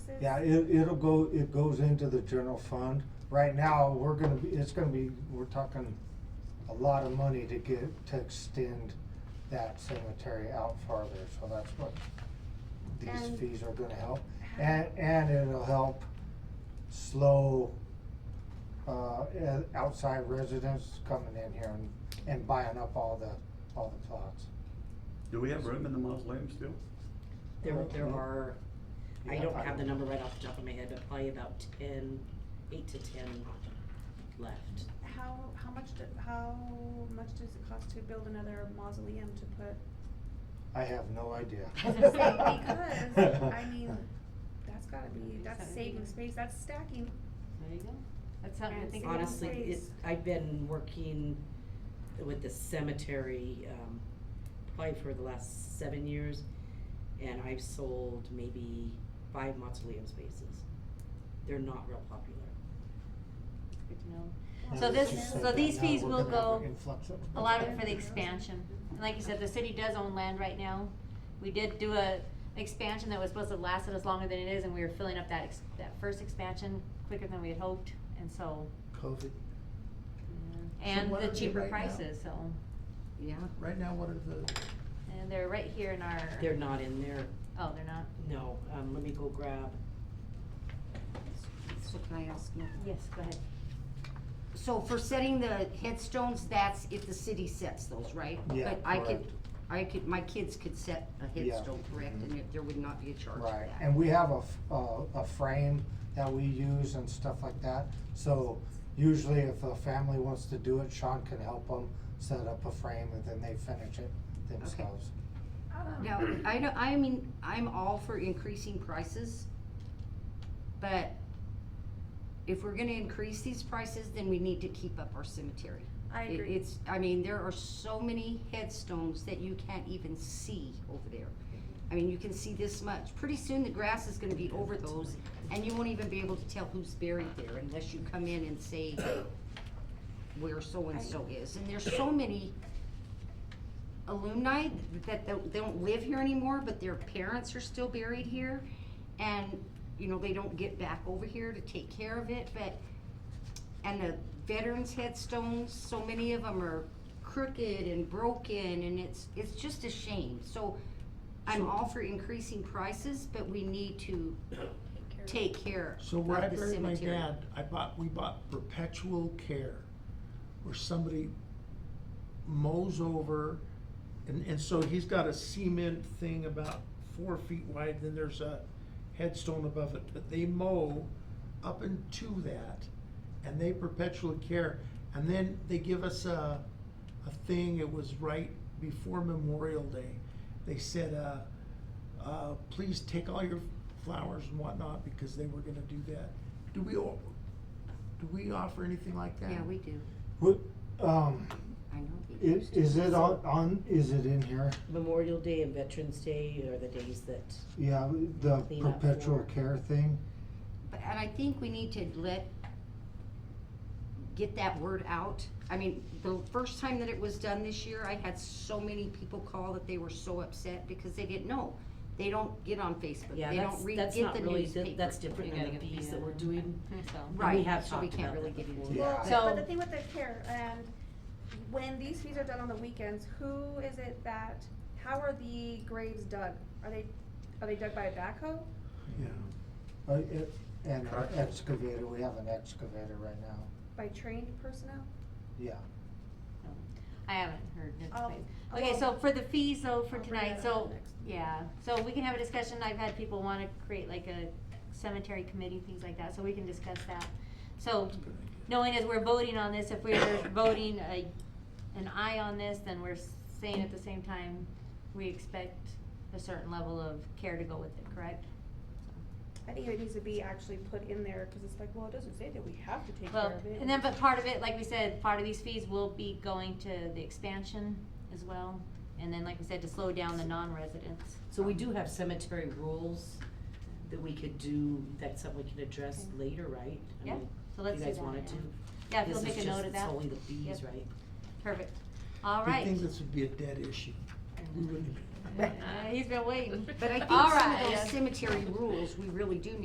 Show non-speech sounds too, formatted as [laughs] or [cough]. Yeah, it, it'll go, it goes into the general fund. Right now, we're gonna be, it's gonna be, we're talking a lot of money to get, to extend that cemetery out farther, so that's what these And- fees are gonna help. And, and it'll help slow, uh, eh, outside residents coming in here and, and buying up all the, all the plots. Do we have room in the mausoleum still? There, there Mhm. are, I Yeah, don't I- have the number right off the top of my head, but probably about ten, eight to ten left. How, how much, do- how much does it cost to build another mausoleum to [laughs] put, [laughs] I have no idea. I was gonna say, because, [laughs] I mean, that's gotta be, that's Seventy. saving space, that's stacking. There you go. That's something to Yes. think about. Honestly, it, Please. I've been working with the cemetery, um, probably for the last seven years, and I've sold maybe five mausoleum spaces. They're not real popular. Good to know. Now So that this- you said so that, these now fees we're will gonna have go- an influx of- A lot of it for the expansion. And like you said, the city does own land right now. We did do a expansion that was supposed to last us longer than it is, and we were filling up that, ex- that first expansion quicker than we had hoped, and so, COVID. and what the are they cheaper right now? prices, so. Yeah. Right now, what are the, And they're right here in our, They're not in there, oh, they're not? no, um, let me go grab, So can I ask you? Yes, go ahead. So for setting the headstones, that's if the city sets those, right? Yeah, But I could, correct. I could, my kids could set a Yeah. Mm-hmm. headstone, correct, and it- there would not be a charge for Right, that. and we have a, f- a- a frame that we use and stuff like that. So usually if a family wants to do it, Sean can help them set up a frame and then they finish it themselves. Now, I know, I mean, I'm all for increasing prices, but if we're gonna increase these prices, then we need to keep up our cemetery. I It- agree. It's, I mean, there are so many headstones that you can't even see over there. I mean, you can see this much. Pretty soon, the grass is gonna be over those, and you won't even be able to tell who's buried there unless you come in and say where so-and-so is. And there's so many alumni that don't- they don't live here anymore, but their parents are still buried here. And, you know, they don't get back over here to take care of it, but and the veterans headstones, so many of them are crooked and broken and it's, it's just a shame. So I'm all for increasing prices, but we need to take care of the so cemetery. where I buried my dad, I bought, we bought perpetual care, where somebody mows over, and, and so he's got a cement thing about four feet wide, then there's a headstone above it, but they mow up into that, and they perpetually care, and then they give us a, a thing, it was right before Memorial Day, they said, uh, uh, please take all your flowers and whatnot, because they were gonna do that. Do we, o- do we offer anything like that? Yeah, we do. Would, um, I know. we is, used to. is it on, on, is it in here? Memorial Day and Veterans Day are the days that Yeah, the Clean up perpetual floor. care thing, But- And I think we need to let, get that word out. I mean, the first time that it was done this year, I had so many people call that they were so upset because they didn't know. They don't get on Facebook, Yeah, they that's, don't read, that's get not the really, newspaper. that- that's different You than gotta the get fees the, that we're uh, doing. So. Right, have so we talked can't about really that get into before. it. Well, Yeah. but- So- but the thing with the care, and when these fees are done on the weekends, who is it that, how are the graves dug? Are they, are they dug by a backhoe? Yeah. uh, it, and an Correct. excavator, we have an excavator right now, By trained personnel? yeah. I haven't heard it. Oh, but- Okay, well, so for the fees though, for I'll bring tonight, that up so, next. yeah, so we can have a discussion, I've had people wanna create like a cemetery committee, things like that, so we can discuss that. So, knowing as we're voting on [coughs] this, if we're voting a, an aye on this, then we're saying at the same time, we expect a certain level of care to go with it, correct? I think it needs to be actually put in there, cause it's like, well, it doesn't say that we have to take care Well, of it. and then, but part of it, like we said, part of these fees will be going to the expansion as well, and then, like we said, to slow down the non-residents. So we do have cemetery rules that we could do, that's something we could address Okay. later, right? I Yeah, mean, so let's do that. You guys wanted to? yeah. Yeah, if you'll This make is a note of just that, solely the fees, Yep. right? perfect, all I right. think this would be a dead issue. We wouldn't even- [laughs] Uh, He's been waiting. But I think All some right. of those cemetery rules, we really do need